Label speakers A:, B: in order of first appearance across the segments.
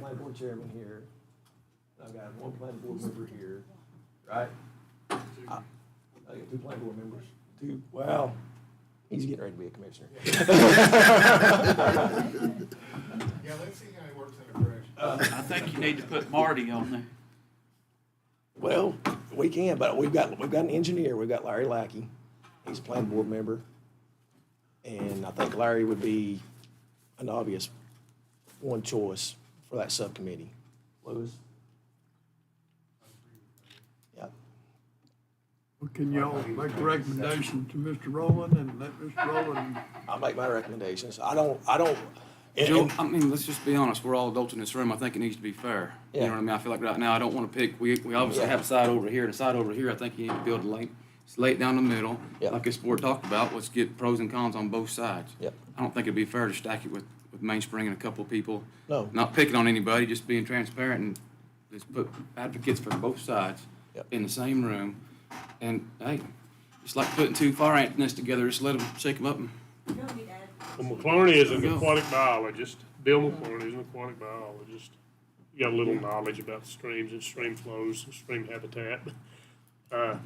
A: planning board chairman here, and I've got one planning board member here, right? I I got two planning board members, two, wow, he's getting ready to be a commissioner.
B: Yeah, let's see how he works in a correction.
C: I think you need to put Marty on there.
A: Well, we can, but we've got, we've got an engineer, we've got Larry Lackey, he's a planning board member. And I think Larry would be an obvious one choice for that subcommittee. Lewis? Yep.
D: Well, Can y'all make a recommendation to Mr. Rowland and let Mr. Rowland,
A: I'll make my recommendations. I don't, I don't. and-
E: Joe,
A: and-
E: I mean, let's just be honest. We're all adults in this room. I think it needs to be fair. You know
A: Yeah.
E: what I mean? I feel like right now I don't want to pick. We, we obviously
A: Yeah.
E: have a side over here and a side over here. I think you need to build a lane. Just lay it down the middle.
A: Yeah.
E: Like this board talked about, let's get pros and cons on both sides.
A: Yep.
E: I don't think it'd be fair to stack it with, with Mainspring and a couple people.
A: No.
E: Not picking on anybody, just being transparent and just put advocates for both sides
A: Yep.
E: in the same room. And hey, it's like putting two fire ant nests together. Just let them shake them up and
F: Well, McClurny is an
E: Yeah.
F: aquatic biologist. Bill McClurny is an aquatic biologist. He got a little knowledge about streams and stream flows and stream habitat. Uh,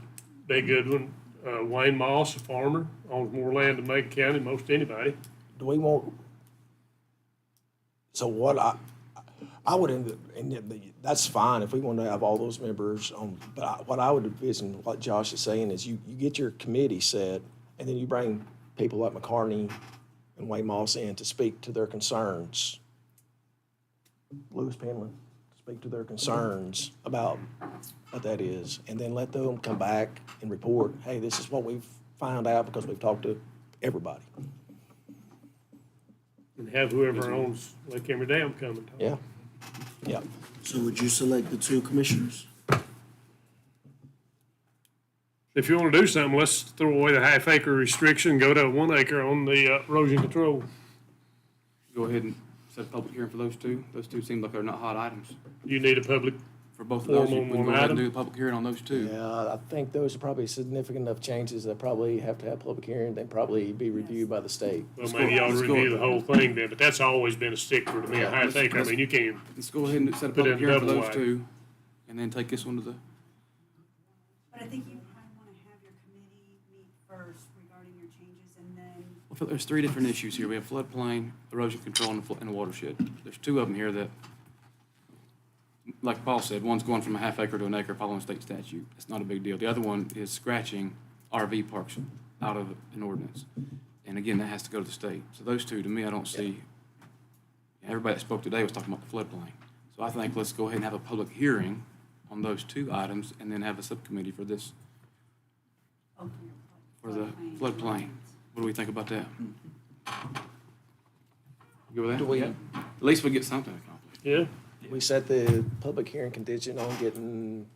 F: Big Goodwin, uh, Wayne Moss, a farmer, owns more land in Macon County than most anybody.
A: Do we want? So what I, I would end up, and yet the- that's fine if we want to have all those members on, but I- what I would envision, what Josh is saying is you, you get your committee set and then you bring people like McCartney and Wayne Moss in to speak to their concerns. Lewis Penland, to speak to their concerns about what that is. And then let them come back and report, hey, this is what we've found out because we've talked to everybody.
F: And have whoever owns Lake Emery Dam come and talk.
A: Yeah, yeah.
G: So would you select the two commissioners?
F: If you want to do something, let's throw away the half acre restriction, go to one acre on the uh, erosion control.
E: go ahead and set a public hearing for those two. Those two seem like they're not hot items.
F: You need a public,
E: For both of those,
F: Form
E: you
F: on
E: we can
F: one
E: go ahead
F: item?
E: and do a public hearing on those two.
A: Yeah, I think those are probably significant enough changes that probably have to have public hearing, they probly be reviewed by the state.
F: well,
E: go-
F: maybe you ought to
E: let's go-
F: review the whole thing then, but that's always been a stickler to me, a
E: Yeah,
F: half
E: let's-
F: acre. I
E: let's-
F: mean, you can't even
E: Let's go ahead and set a
F: Put it
E: public hearing for
F: double
E: those
F: wide.
E: two, and then take this one to the,
H: But I think you probably want to have your committee meet first regarding your changes and then.
E: I feel there's three different issues here. We have floodplain, erosion control, and the flo- and the watershed. There's two of them here that, like Paul said, one's going from a half acre to an acre following state statute. It's not a big deal. The other one is scratching RV parks out of an ordinance. And again, that has to go to the state. So those two, to me, I don't see, everybody that spoke today was talking about the floodplain. So I think let's go ahead and have a public hearing on those two items and then have a subcommittee for this,
H: open your
E: for the
H: floodplain.
E: floodplain. What do we think about that? You good with that?
A: Do we-
E: Yeah. At least we get something accomplished.
F: Yeah,
A: We set the public hearing contingent on getting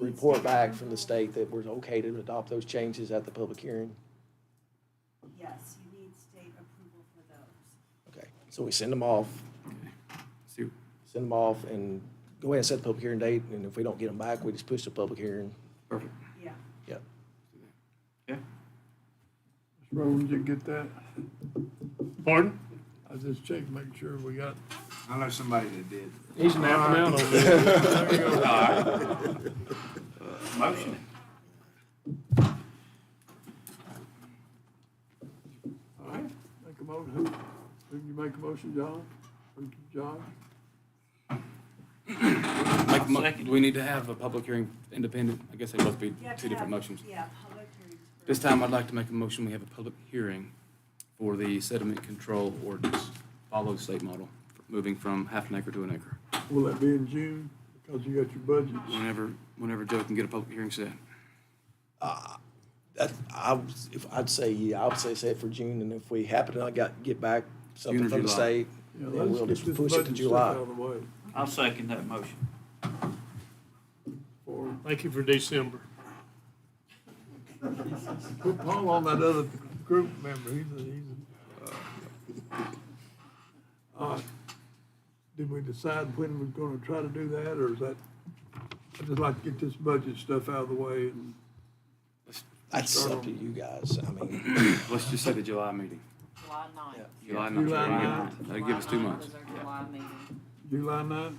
A: report back from the state that we're okay to adopt those changes at the public hearing.
H: Yes, you need state approval for those.
A: Okay, so we send them off,
E: See,
A: send them off and go ahead and set the public hearing date, and if we don't get them back, we just push the public hearing.
E: perfect.
H: Yeah.
A: Yep.
E: Yeah.
D: Mr. Rowland, you get that?
F: pardon?
D: I just checked, make sure we got,
I: I know somebody that did.
F: He's napping out on this.
D: there you go.
I: Motion.
D: All right, Make a motion, who, who you make a motion, John? Who- John?
E: Make a mo- Do we need to have a public hearing independent? I guess they must be
H: You have
E: two
H: to have-
E: different motions.
H: Yeah, public hearings. first.
E: This time, I'd like to make a motion, we have a public hearing for the sediment control ordinance, follow the state model, moving from half an acre to an acre.
D: Will that be in June? Because you got your budgets.
E: Whenever, whenever Joe can get a public hearing set.
A: That, I, was- if, I'd say, yeah, I would say set for June, and if we happen to not got, get back
E: June
A: something
E: or
A: from the
E: July.
A: state,
D: Yeah,
A: then
D: let's
A: we'll
D: get
A: just
D: this
A: push it to
D: budget stuff
A: July.
D: Out of the way
C: I'll second that motion.
D: for,
F: Thank you for December.
D: put Paul on that other group member, he's a, he's a. All right. Did we decide when we're gonna try to do that, or is that, I'd just like to get this budget stuff out of the way and.
A: That's
D: Start
A: up
D: on-
A: to you guys. I mean,
E: Let's just say the July meeting.
J: July ninth.
E: July
D: July
E: ninth.
D: ninth.
E: That'd give us two months.
J: July ninth was our July meeting.
D: July ninth?